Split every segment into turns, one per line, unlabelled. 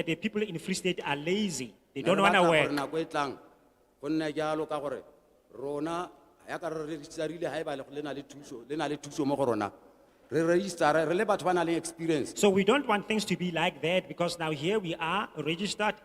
that the people in Free State are lazy, they don't wanna work.
Nako e tlang, go nne jalo ka gore, rona, yaka re registerile haeba le- le na le thuso, le na le thuso mo go rona. Re register, re le batho ba nang le experience.
So we don't want things to be like that because now here we are registered,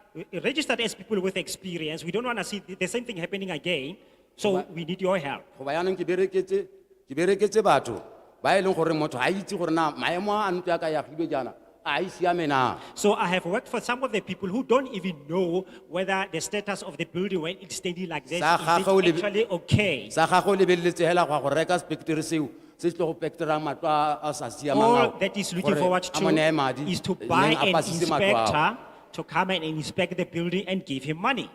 registered as people with experience. We don't want to see the- the same thing happening again. So we need your help.
Go ba yanong ke bereketse, ke bereketse batho, ba e leng gore motho ha itse gore na maemo a ntlo ya ka ya agilwe jaana, a e siame na.
So I have worked for some of the people who don't even know whether the status of the building when it's standing like this
Sa
is it
gagwe o lebe-
actually okay.
Sa gago o lebeletse hela go ya go reka spectre seo, se se tlo go pectorang matlo a- a sa siamang ao,
All that is looking
gore
forward
a mo neye
to
madi,
is to
e leng
buy
a
an
pasise matlo ao.
inspector to come and inspect the building and give him money.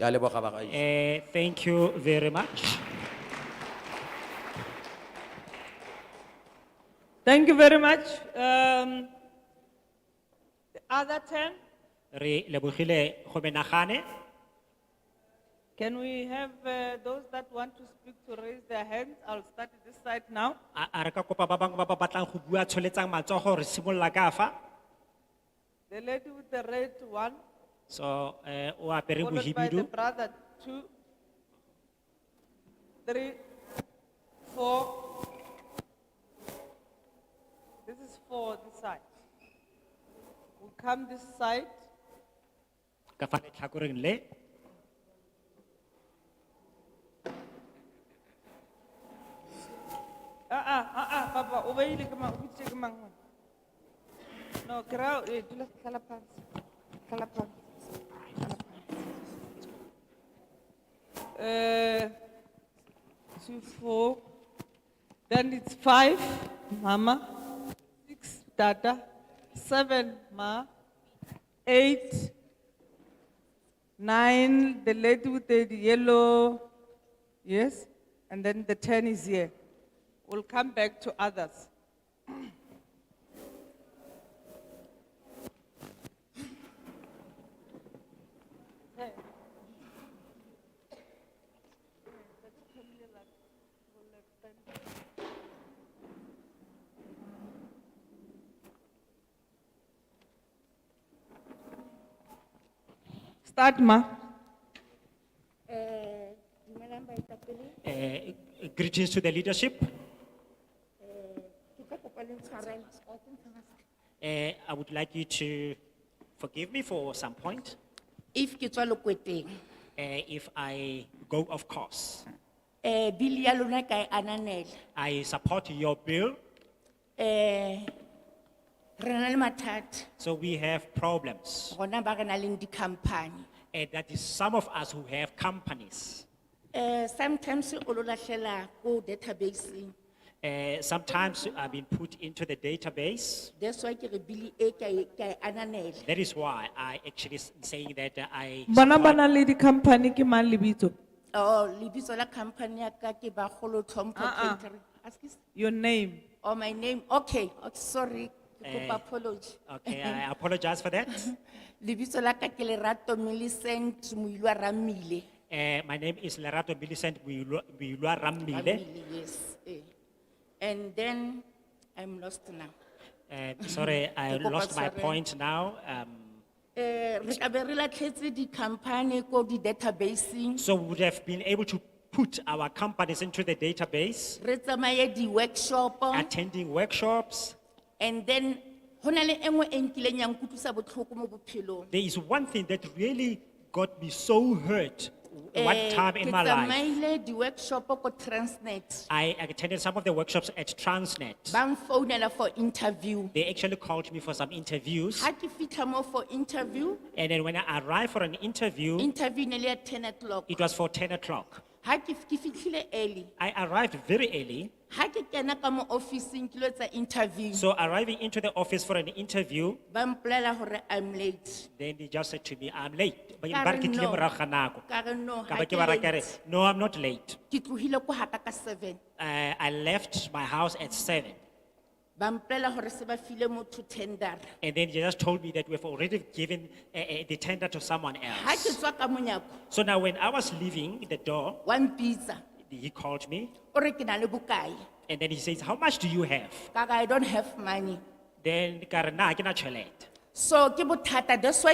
Ke a leboga bagaetsho.
Eh, thank you very much.
Thank you very much. Um, the other ten,
Re lebogile go menagane.
can we have uh, those that want to speak to raise their hands? I'll start this side now.
A a re ka kopa ba bangwe ba ba batlang go bua tsholetsang matsogo re simolola ka fa.
The lady with the red one,
So eh o apere
followed by the
bohibidu.
brother, two, three, four. This is four, this side. We come this side,
ka fa letlhakoreng le.
Ah, ah, ah, ah, papa, o beile ke mang, o bitsitse ke mang wena? No, ke ra, eh, dula, tlala phansi, tlala phansi, tlala phansi. Eh, two, four, then it's five, mama, six, dada, seven, ma, eight, nine, the lady with the yellow, yes, and then the ten is here. We'll come back to others. Start, ma.
Eh, dumelang baetapele,
Eh greetings to the leadership.
ke tla kopa le ntshwarele.
Eh I would like you to forgive me for some point
If ke tswa lokweteng,
eh if I go off course.
eh, bili ya lona ka e ananela,
I support your bill.
eh, re na le mathata,
So we have problems.
rona ba re nang le di-company.
And that is some of us who have companies.
Eh, sometimes o lo lahlela ko database-eng,
Eh sometimes I've been put into the database.
that's why ke re bili e ka e- ka e ananela.
That is why I actually s- saying that uh, I.
Bona
support-
bana le di company ki ma libito.
Oh, lebitso la company ya ka ke Bagolo Tlhompho
Ah, ah.
Catering. Askis-
Your name.
Oh, my name, okay, okay, sorry, ke
Eh.
kopa apology.
Okay, I apologize for that.
Lebitso la ka ke Lerato Millicent Moilwa Ramile.
Eh, my name is Lerato Millicent Builwa Builwa Ramile.
Family, yes. eh. And then I'm lost now.
Eh, sorry, I
Ke kopa
lost my
tshwarelo.
point now. Um,
Eh, re ka be re latlhetse di-company ko di-databaseng
so we would have been able to put our companies into the database,
re tsamaye di-workshopo
attending workshops.
and then go na le e nngwe e nkileng ya nkutlwisa botlhoko mo bophelong
There is one thing that really got me so hurt one
Eh,
time in my
ke
life.
tsamaile di-workshopo ko transnet
I attended some of the workshops at Transnet.
ba nfounela for interview
They actually called me for some interviews.
ga ke fitlha mo for interview
And then when I arrived for an interview,
interview e ne le ya ten o'clock
Hmm? it was for 10 o'clock.
ga ke ke fitlhile early
I arrived very early.
ga ke kena ka mo officing ke lo etsa interview
So arriving into the office for an interview,
ba mpolela gore i'm late
then they just said to me, I'm late. Ba-
Ka
ba re
re
ke tlile
no.
morago ga nako.
ka re no
Ka
ga
ba
ke
ke ba ra ka re,
late.
No, I'm not late.
ke tlohile ko gaka ka seven
Uh, I left my house at seven.
ba mpolela gore se ba file motho tendera
And then they just told me that we've already given uh, uh, the tender to someone
ga ke
else.
tswa ka monyako
So now when I was leaving the door,
wa mpitsa
he called me
o re ke na le bokae
and then he says, how much do you have?
ka ka i don't have money
Then ka re, "Na, ha ke na tjhelete."
so ke bothata that's why